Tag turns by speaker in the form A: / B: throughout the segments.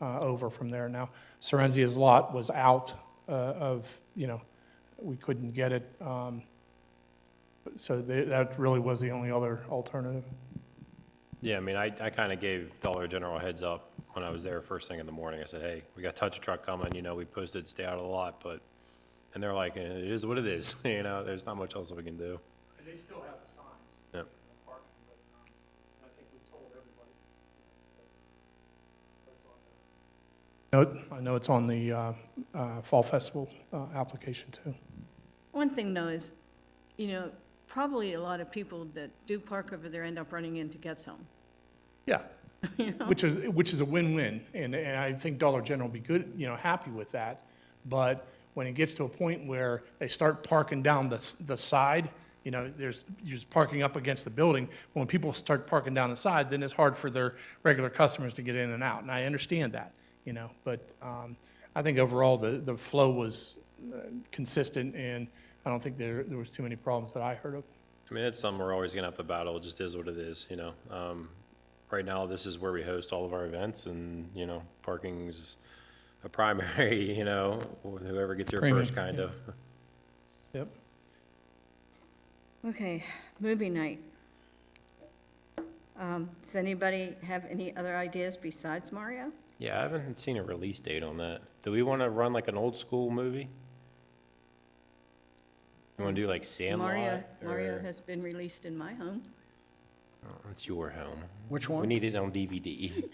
A: uh, over from there. Now, Sorenzia's lot was out uh, of, you know, we couldn't get it. um, So tha- that really was the only other alternative.
B: Yeah, I mean, I, I kind of gave Dollar General a heads up when I was there first thing in the morning. I said, hey, we got touch truck coming, you know, we posted stay out of the lot, but, and they're like, "Eh, it is what it is, you know, there's not much else we can do.
C: And they still have the signs.
B: Yep.
C: Parking, but, um, I think we told everybody. That's on there.
A: No, I know it's on the uh, uh, Fall Festival uh, application too.
D: One thing though is, you know, probably a lot of people that do park over there end up running into Gets Home.
A: Yeah. Which is, which is a win-win, and, and I think Dollar General will be good, you know, happy with that. But when it gets to a point where they start parking down the, s- the side, you know, there's, you're just parking up against the building. When people start parking down the side, then it's hard for their regular customers to get in and out, and I understand that, you know. But, um, I think overall, the, the flow was uh, consistent, and I don't think there, there was too many problems that I heard of.
B: I mean, it's something we're always gonna have to battle, it just is what it is, you know? Um, right now, this is where we host all of our events and, you know, parking's a primary, you know, whoever gets here
A: Premium,
B: first, kind of.
A: Yep.
D: Okay, movie night. Um, Does anybody have any other ideas besides Mario?
B: Yeah, I haven't seen a release date on that. Do we wanna run like an old school movie? You wanna do like Sandlot?
D: Mario, Mario
B: or-
D: has been released in my home.
B: Oh, It's your home.
E: Which
B: We
E: one?
B: need it on DVD.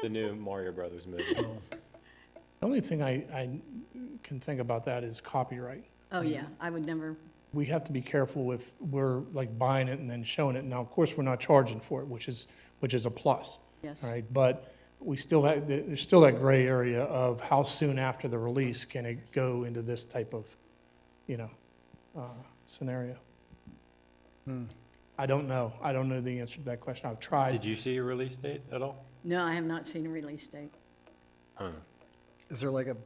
B: The new Mario Brothers movie.
E: Oh.
A: The only thing I, I can think about that is copyright.
D: Oh, yeah, I would never,
A: we have to be careful if we're like buying it and then showing it. Now, of course, we're not charging for it, which is, which is a plus.
D: Yes.
A: All right, but we still have, there- there's still that gray area of how soon after the release can it go into this type of, you know, uh, scenario? I don't know. I don't know the answer to that question. I've
B: Did
A: tried.
B: you see a release date at all?
D: no, I have not seen a release date.
E: Is there like a,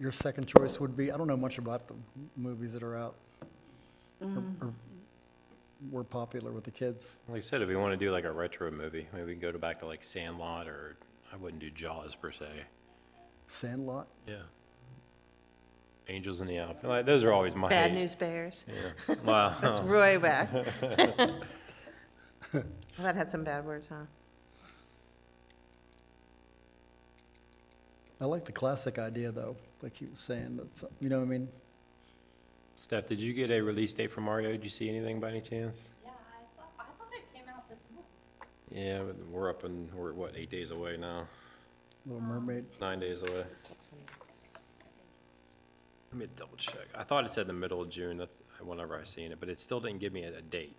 E: your second choice would be, I don't know much about the movies that are out. or- or Were popular with the kids.
B: Like I said, if we wanna do like a retro movie, maybe we can go to back to like Sandlot or, I wouldn't do Jaws per se.
E: Sandlot?
B: Yeah. Angels in the Outfit, like, those are always my.
F: Bad News Bears.
B: Yeah. Wow.
F: That's Roy Wack. That had some bad words, huh?
E: I like the classic idea though, like you was saying, that's, you know what I mean?
B: Steph, did you get a release date for Mario? Did you see anything by any chance?
G: Yeah, I saw, I thought it came out this month.
B: Yeah, but we're up and we're what eight days away now,
E: Little Mermaid.
B: nine days away. Let me double check. I thought it said the middle of June. That's whenever I seen it, but it still didn't give me a, a date.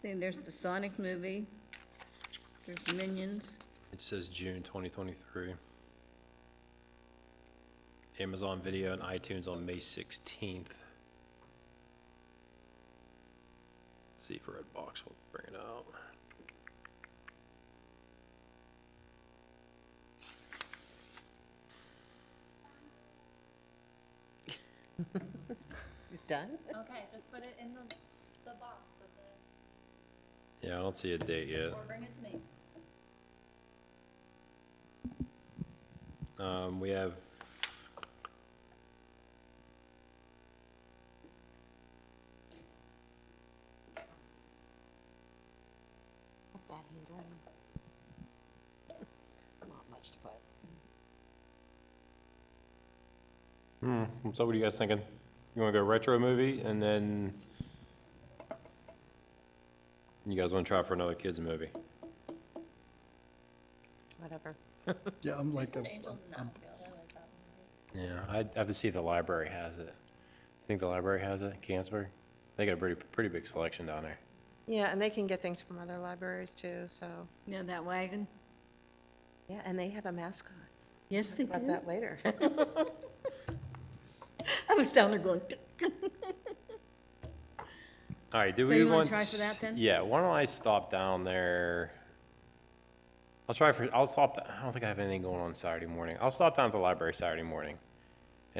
D: See, there's the Sonic movie, there's Minions.
B: It says June 2023. Amazon Video and iTunes on May 16th. Let's see if Redbox will bring it out.
F: He's done?
G: Okay, just put it in the, the box with it,
B: Yeah, I don't see a date yet.
G: or bring it to me.
B: Um, we have. Hmm, so what are you guys thinking? You wanna go retro movie and then? You guys wanna try for another kids movie?
F: Whatever.
E: Yeah, I'm like,
G: Just an
E: a-
G: Angels in the Outfield, I like that one.
B: Yeah, I'd have to see if the library has it. You think the library has it, Canterbury? They got a pretty, pretty big selection down there.
F: Yeah, and they can get things from other libraries too, so,
D: You know that wagon?
F: yeah, and they have a mascot.
D: Yes, they
F: About
D: did.
F: that later.
D: I was down there going,
B: All right, do
D: So
B: we
D: you wanna
B: want?
D: try
B: s-
D: for that then?
B: Yeah, why don't I stop down there? I'll try for, I'll stop, I don't think I have anything going on Saturday morning. I'll stop down at the library Saturday morning.